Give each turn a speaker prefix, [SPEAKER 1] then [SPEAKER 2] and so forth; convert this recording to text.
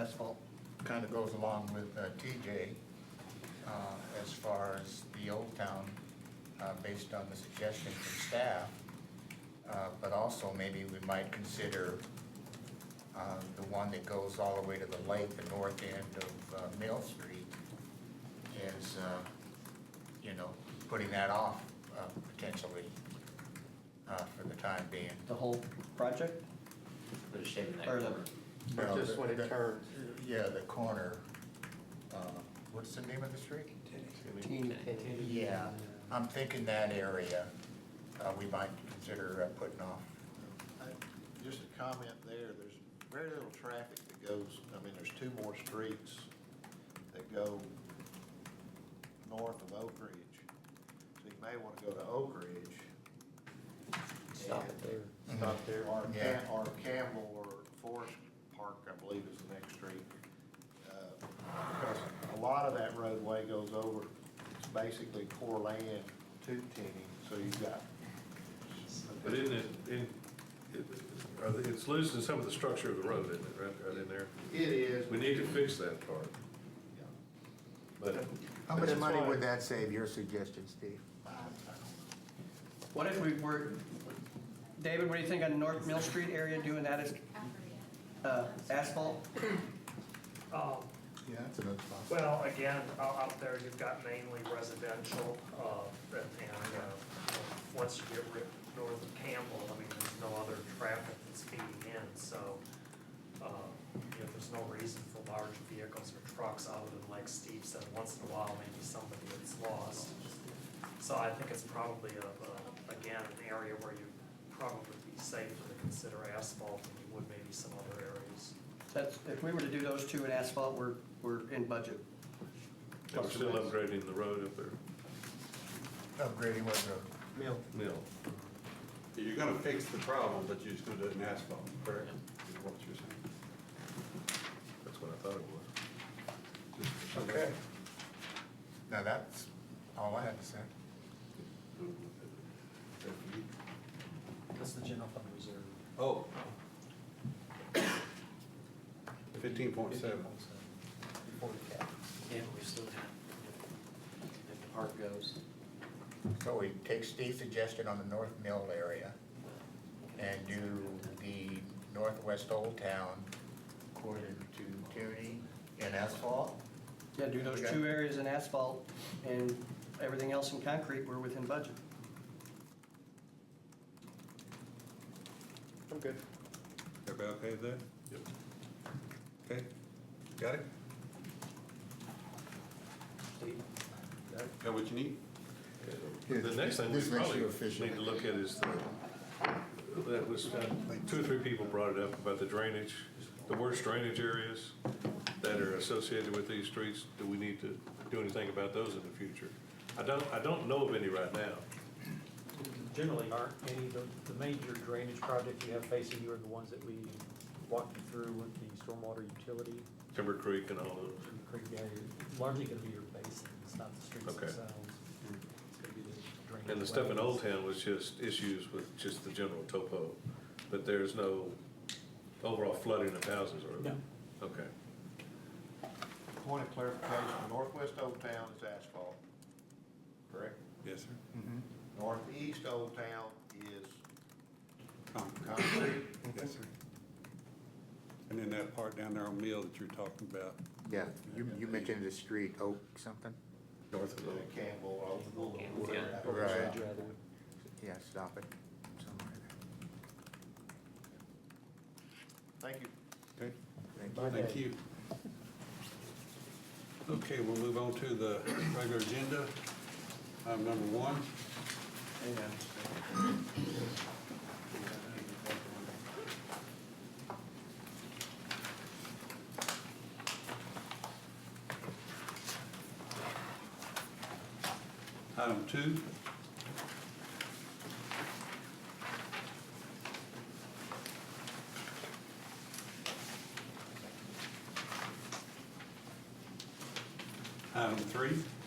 [SPEAKER 1] asphalt.
[SPEAKER 2] kind of goes along with uh, TJ uh, as far as the Old Town, uh, based on the suggestion from staff. Uh, But also maybe we might consider uh, the one that goes all the way to the lake, the north end of uh, Mill Street is, uh, you know, putting that off uh, potentially uh, for the time being.
[SPEAKER 1] The whole project?
[SPEAKER 3] Put a shape in that
[SPEAKER 1] Or the-
[SPEAKER 3] corner.
[SPEAKER 4] But
[SPEAKER 2] No,
[SPEAKER 4] just
[SPEAKER 2] the-
[SPEAKER 4] when
[SPEAKER 2] the-
[SPEAKER 4] it turns,
[SPEAKER 2] Yeah, the corner, uh, what's the name of the street? Yeah, I'm thinking that area, uh, we might consider uh, putting off.
[SPEAKER 5] I- Just a comment there, there's very little traffic that goes, I mean, there's two more streets that go north of Oak Ridge. So you may want to go to Oak Ridge.
[SPEAKER 3] Stop
[SPEAKER 5] and-
[SPEAKER 3] it there.
[SPEAKER 5] Stop there. Or
[SPEAKER 2] Yeah.
[SPEAKER 5] Cam, or Campbell or Forest Park, I believe is the next street. Uh, Because a lot of that roadway goes over, it's basically core land to Tenny, so you've got.
[SPEAKER 4] but isn't it, in, it- are they- it's losing some of the structure of the road, isn't it, right, right in there?
[SPEAKER 5] It is.
[SPEAKER 4] We need to fix that part,
[SPEAKER 5] Yeah.
[SPEAKER 4] but.
[SPEAKER 2] How much
[SPEAKER 4] that's
[SPEAKER 2] money
[SPEAKER 4] why-
[SPEAKER 2] would that save, your suggestion, Steve?
[SPEAKER 1] What if we were, David, what do you think on North Mill Street area doing that as, uh, asphalt?
[SPEAKER 6] Um,
[SPEAKER 2] Yeah, that's another possibility.
[SPEAKER 6] Well, again, o- out there, you've got mainly residential, uh, and, and, uh, once you get rid north of Campbell, I mean, there's no other traffic that's feeding in, so, uh, you know, there's no reason for large vehicles or trucks other than like Steve said, once in a while, maybe somebody gets lost. So I think it's probably a, a- again, an area where you probably be safer to consider asphalt than you would maybe some other areas.
[SPEAKER 1] That's, if we were to do those two in asphalt, we're, we're in budget.
[SPEAKER 4] and We're still upgrading the road up there,
[SPEAKER 2] Upgrading what road?
[SPEAKER 5] Mill.
[SPEAKER 4] mill.
[SPEAKER 7] You're gonna fix the problem, but you're just gonna do it in asphalt, correct? Is what you're saying.
[SPEAKER 4] that's what I thought it was.
[SPEAKER 7] Just-
[SPEAKER 2] Now, that's all I had to say.
[SPEAKER 1] That's the general fund reserve.
[SPEAKER 7] Oh. Fifteen point seven.
[SPEAKER 3] Yeah, but we still have, if the park goes.
[SPEAKER 2] So we take Steve's suggestion on the North Mill area and do the Northwest Old Town according to Tierney and asphalt?
[SPEAKER 1] Yeah, do those two areas in asphalt and everything else in concrete, we're within budget.
[SPEAKER 4] I'm good.
[SPEAKER 7] Everybody okay with that?
[SPEAKER 4] Yep.
[SPEAKER 7] Okay, got it? Got what you need?
[SPEAKER 4] The next thing we
[SPEAKER 2] This makes
[SPEAKER 4] probably
[SPEAKER 2] you efficient.
[SPEAKER 4] need to look at is the, that was, uh, two or three people brought it up about the drainage, the worst drainage areas that are associated with these streets. Do we need to do anything about those in the future? I don't, I don't know of any right now.
[SPEAKER 8] Generally, aren't any, the, the major drainage projects you have facing you are the ones that we walked you through with the stormwater utility,
[SPEAKER 4] Timber Creek and all those.
[SPEAKER 8] and the creek area, largely gonna be your basin, it's not the streets
[SPEAKER 4] Okay.
[SPEAKER 8] themselves. It's gonna be the drainage.
[SPEAKER 4] And the stuff in
[SPEAKER 8] wells.
[SPEAKER 4] Old Town was just issues with just the general topo, but there's no overall flooding of houses or?
[SPEAKER 8] No.
[SPEAKER 4] Okay.
[SPEAKER 5] Point of clarification, northwest Old Town is asphalt, correct?
[SPEAKER 7] Yes, sir.
[SPEAKER 5] Northeast Old Town is
[SPEAKER 7] Concrete.
[SPEAKER 5] concrete.
[SPEAKER 7] Yes, sir. And then that part down there on Mill that you're talking about.
[SPEAKER 2] Yeah, you, you mentioned the street, Oak something?
[SPEAKER 7] North of
[SPEAKER 5] uh,
[SPEAKER 7] Mill.
[SPEAKER 5] Campbell, Oakville,
[SPEAKER 3] Yeah.
[SPEAKER 5] whatever.
[SPEAKER 2] Right.
[SPEAKER 8] Drainage rather.
[SPEAKER 2] Yeah, stop it somewhere
[SPEAKER 5] Thank you.
[SPEAKER 7] Okay,
[SPEAKER 2] there. Thank you.
[SPEAKER 7] thank you. Okay, we'll move on to the regular agenda. Item number one. Item two. Item three.
[SPEAKER 3] Um,